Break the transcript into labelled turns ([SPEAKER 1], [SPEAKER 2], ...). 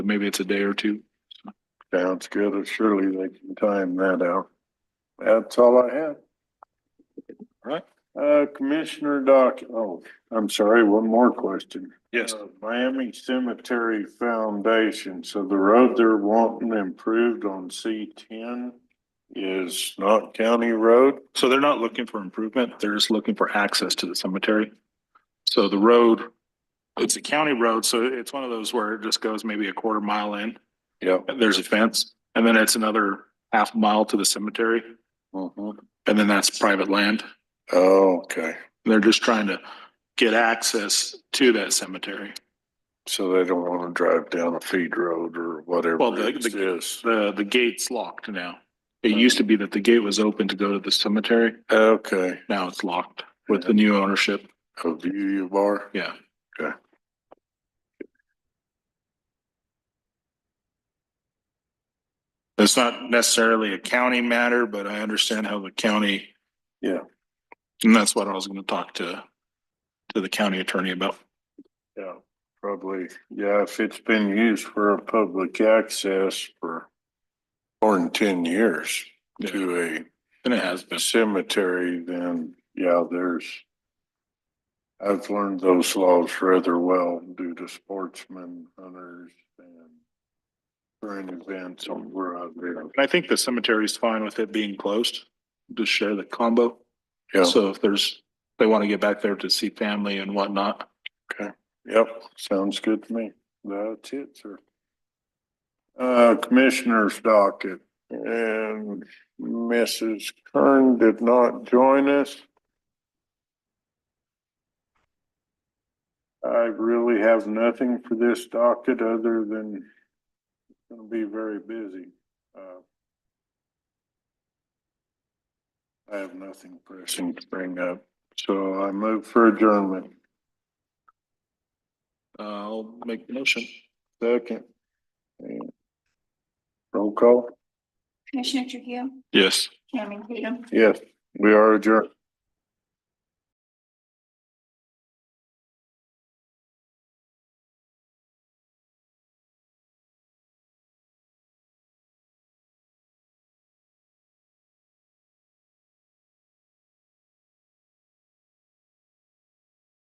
[SPEAKER 1] Maybe it's a day or two.
[SPEAKER 2] Sounds good. Surely they can time that out. That's all I have.
[SPEAKER 1] Right.
[SPEAKER 2] Uh, Commissioner Doc, oh, I'm sorry, one more question.
[SPEAKER 1] Yes,
[SPEAKER 2] Uh, Miami Cemetery Foundation, so the road they're wanting improved on C ten is not county road?
[SPEAKER 1] so they're not looking for improvement, they're just looking for access to the cemetery. So the road, it's a county road, so it's one of those where it just goes maybe a quarter mile in,
[SPEAKER 2] Yep.
[SPEAKER 1] and there's a fence, and then it's another half mile to the cemetery,
[SPEAKER 2] Mhm.
[SPEAKER 1] and then that's private land.
[SPEAKER 2] Oh, okay.
[SPEAKER 1] They're just trying to get access to that cemetery.
[SPEAKER 2] So they don't want to drive down a feed road or
[SPEAKER 1] Well,
[SPEAKER 2] whatever
[SPEAKER 1] the-
[SPEAKER 2] it
[SPEAKER 1] the-
[SPEAKER 2] is.
[SPEAKER 1] The, the gate's locked now. It used to be that the gate was open to go to the cemetery,
[SPEAKER 2] Okay,
[SPEAKER 1] now it's locked with the new ownership,
[SPEAKER 2] a view bar.
[SPEAKER 1] yeah. It's not necessarily a county matter, but I understand how the county.
[SPEAKER 2] Yeah.
[SPEAKER 1] And that's what I was gonna talk to, to the county attorney about.
[SPEAKER 2] Yeah, probably, yeah, if it's been used for a public access for more than ten years to
[SPEAKER 1] And it has
[SPEAKER 2] a
[SPEAKER 1] been,
[SPEAKER 2] cemetery, then, yeah, there's I've learned those laws rather well due to sportsmen, hunters, and current events on where I've been.
[SPEAKER 1] and I think the cemetery is fine with it being closed, to share the combo.
[SPEAKER 2] Yeah,
[SPEAKER 1] So if there's, they wanna get back there to see family and whatnot.
[SPEAKER 2] yep, sounds good to me. That's it, sir. Uh, Commissioner's docket. And Mrs. Kern did not join us. I really have nothing for this docket other than it's gonna be very busy. Uh, I have nothing pressing to bring up, so I move for adjournment.
[SPEAKER 1] uh, I'll make the motion.
[SPEAKER 2] Second. And Roll call?
[SPEAKER 3] Commissioner Trujillo,
[SPEAKER 1] Yes.
[SPEAKER 3] Chairman Tatum,
[SPEAKER 2] Yes, we are adjourned.